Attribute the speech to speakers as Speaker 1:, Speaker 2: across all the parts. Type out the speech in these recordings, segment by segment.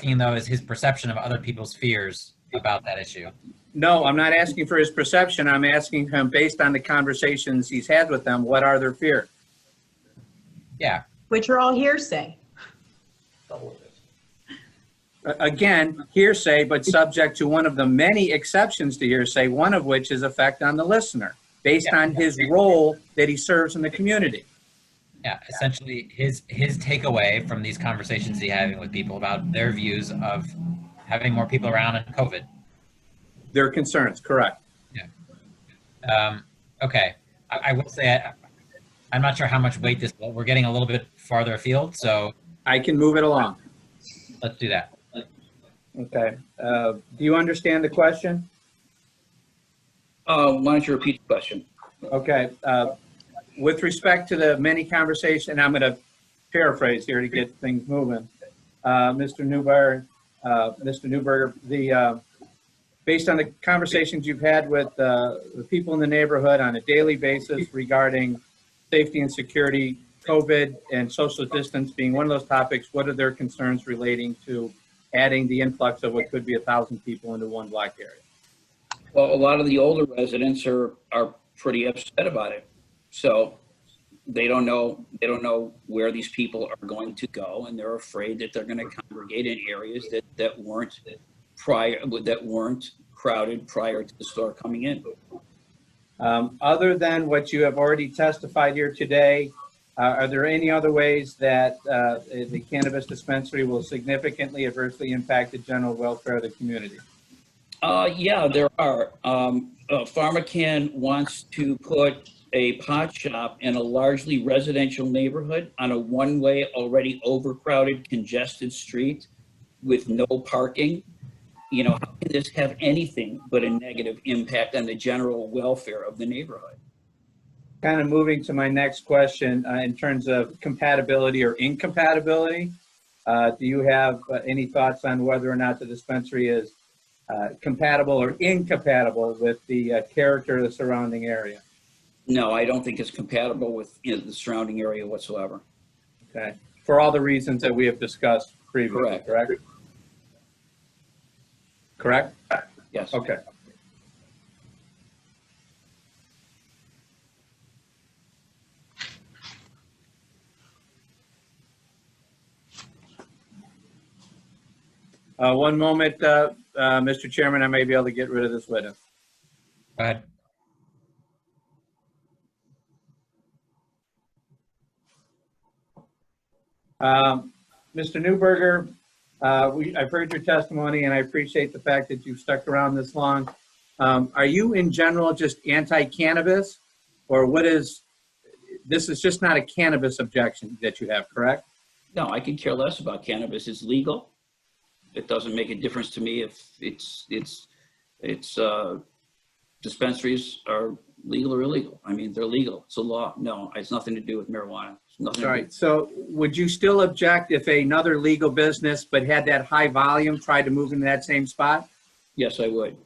Speaker 1: asking though is his perception of other people's fears about that issue.
Speaker 2: No, I'm not asking for his perception. I'm asking him, based on the conversations he's had with them, what are their fear?
Speaker 1: Yeah,
Speaker 3: which are all hearsay.
Speaker 2: A- Again, hearsay, but subject to one of the many exceptions to hearsay, one of which is effect on the listener, based
Speaker 1: Yeah.
Speaker 2: on his role that he serves in the community.
Speaker 1: yeah. Essentially, his his takeaway from these conversations he's having with people about their views of having more people around and COVID.
Speaker 2: Their concerns, correct.
Speaker 1: Um, okay, I, I will say I, I'm not sure how much weight this. We're getting a little bit farther afield, so
Speaker 2: I can move it along.
Speaker 1: let's do that.
Speaker 2: Okay. Uh, Do you understand the question?
Speaker 4: Uh, why don't you repeat the question?
Speaker 2: Okay, uh, with respect to the many conversation, and I'm going to paraphrase here to get things moving. Uh, Mr. Newberg, uh, Mr. Newberger, the, uh, based on the conversations you've had with uh, the people in the neighborhood on a daily basis regarding safety and security, COVID and social distance being one of those topics, what are their concerns relating to adding the influx of what could be a thousand people into one block area?
Speaker 4: Well, a lot of the older residents are, are pretty upset about it. So they don't know, they don't know where these people are going to go and they're afraid that they're gonna congregate in areas that, that weren't prior, that weren't crowded prior to the store coming in.
Speaker 2: Um, Other than what you have already testified here today, uh, are there any other ways that uh, the cannabis dispensary will significantly adversely impact the general welfare of the community?
Speaker 4: Uh, yeah, there are. Um, uh, PharmaCann wants to put a pot shop in a largely residential neighborhood on a one-way, already overcrowded, congested street with no parking. You know, how can this have anything but a negative impact on the general welfare of the neighborhood?
Speaker 2: Kind of moving to my next question uh, in terms of compatibility or incompatibility. uh, Do you have uh, any thoughts on whether or not the dispensary is uh, compatible or incompatible with the uh, character of the surrounding area?
Speaker 4: No, I don't think it's compatible with, you know, the surrounding area whatsoever.
Speaker 2: Okay, for all the reasons that we have discussed previously,
Speaker 4: Correct.
Speaker 2: correct? Correct?
Speaker 4: Yes.
Speaker 2: Okay. Uh, One moment, uh, uh, Mr. Chairman, I may be able to get rid of this witness.
Speaker 1: Go ahead.
Speaker 2: Um, Mr. Newberger, uh, we, I've heard your testimony and I appreciate the fact that you've stuck around this long. Um, are you in general just anti-cannabis? Or what is, this is just not a cannabis objection that you have, correct?
Speaker 4: No, I could care less about cannabis. It's legal. It doesn't make a difference to me if it's, it's, it's, uh, dispensaries are legal or illegal. I mean, they're legal. It's a law. No, it's nothing to do with marijuana. It's nothing.
Speaker 2: All
Speaker 4: to do-
Speaker 2: right, so would you still object if another legal business but had that high volume tried to move into that same spot?
Speaker 4: Yes, I would.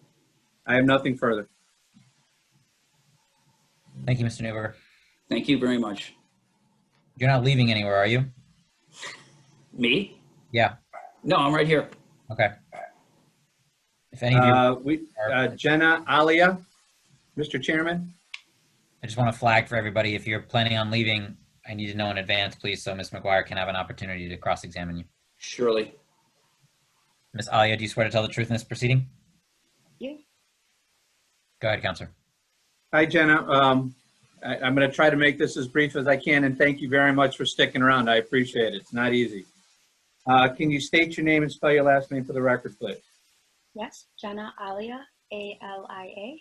Speaker 2: I have nothing further.
Speaker 1: Thank you, Mr. Newberger.
Speaker 4: Thank you very much.
Speaker 1: You're not leaving anywhere, are you?
Speaker 4: Me?
Speaker 1: Yeah.
Speaker 4: No, I'm right here.
Speaker 1: Okay. If any of you,
Speaker 2: Uh, we, uh, Jenna Alia, Mr. Chairman?
Speaker 1: I just want to flag for everybody, if you're planning on leaving, I need to know in advance, please, so Ms. McGuire can have an opportunity to cross-examine you.
Speaker 4: Surely.
Speaker 1: Ms. Alia, do you swear to tell the truth in this proceeding?
Speaker 3: Yeah.
Speaker 1: Go ahead, Counselor.
Speaker 2: Hi, Jenna. Um, I, I'm going to try to make this as brief as I can, and thank you very much for sticking around. I appreciate it. It's not easy. Uh, Can you state your name and spell your last name for the record, please?
Speaker 5: Yes, Jenna Alia, A L I A.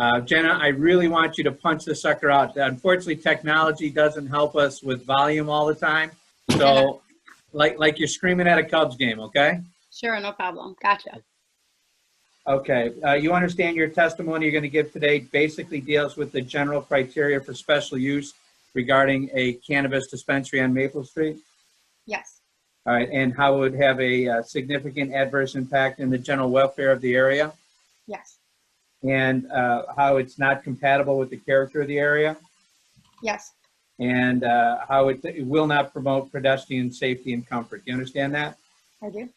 Speaker 2: Uh, Jenna, I really want you to punch this sucker out. Unfortunately, technology doesn't help us with volume all the time. So like, like you're screaming at a Cubs game, okay?
Speaker 5: Sure, no problem. Gotcha.
Speaker 2: Okay, uh, you understand your testimony you're going to give today basically deals with the general criteria for special use regarding a cannabis dispensary on Maple Street?
Speaker 5: Yes,
Speaker 2: All right, uh, and how it would have a uh, significant adverse impact in the general welfare of the area,
Speaker 5: yes,
Speaker 2: and uh, how it's not compatible with the character of the area,
Speaker 5: yes,
Speaker 2: and uh, how it it will not promote pedestrian safety and comfort. Do you understand that?
Speaker 5: I do.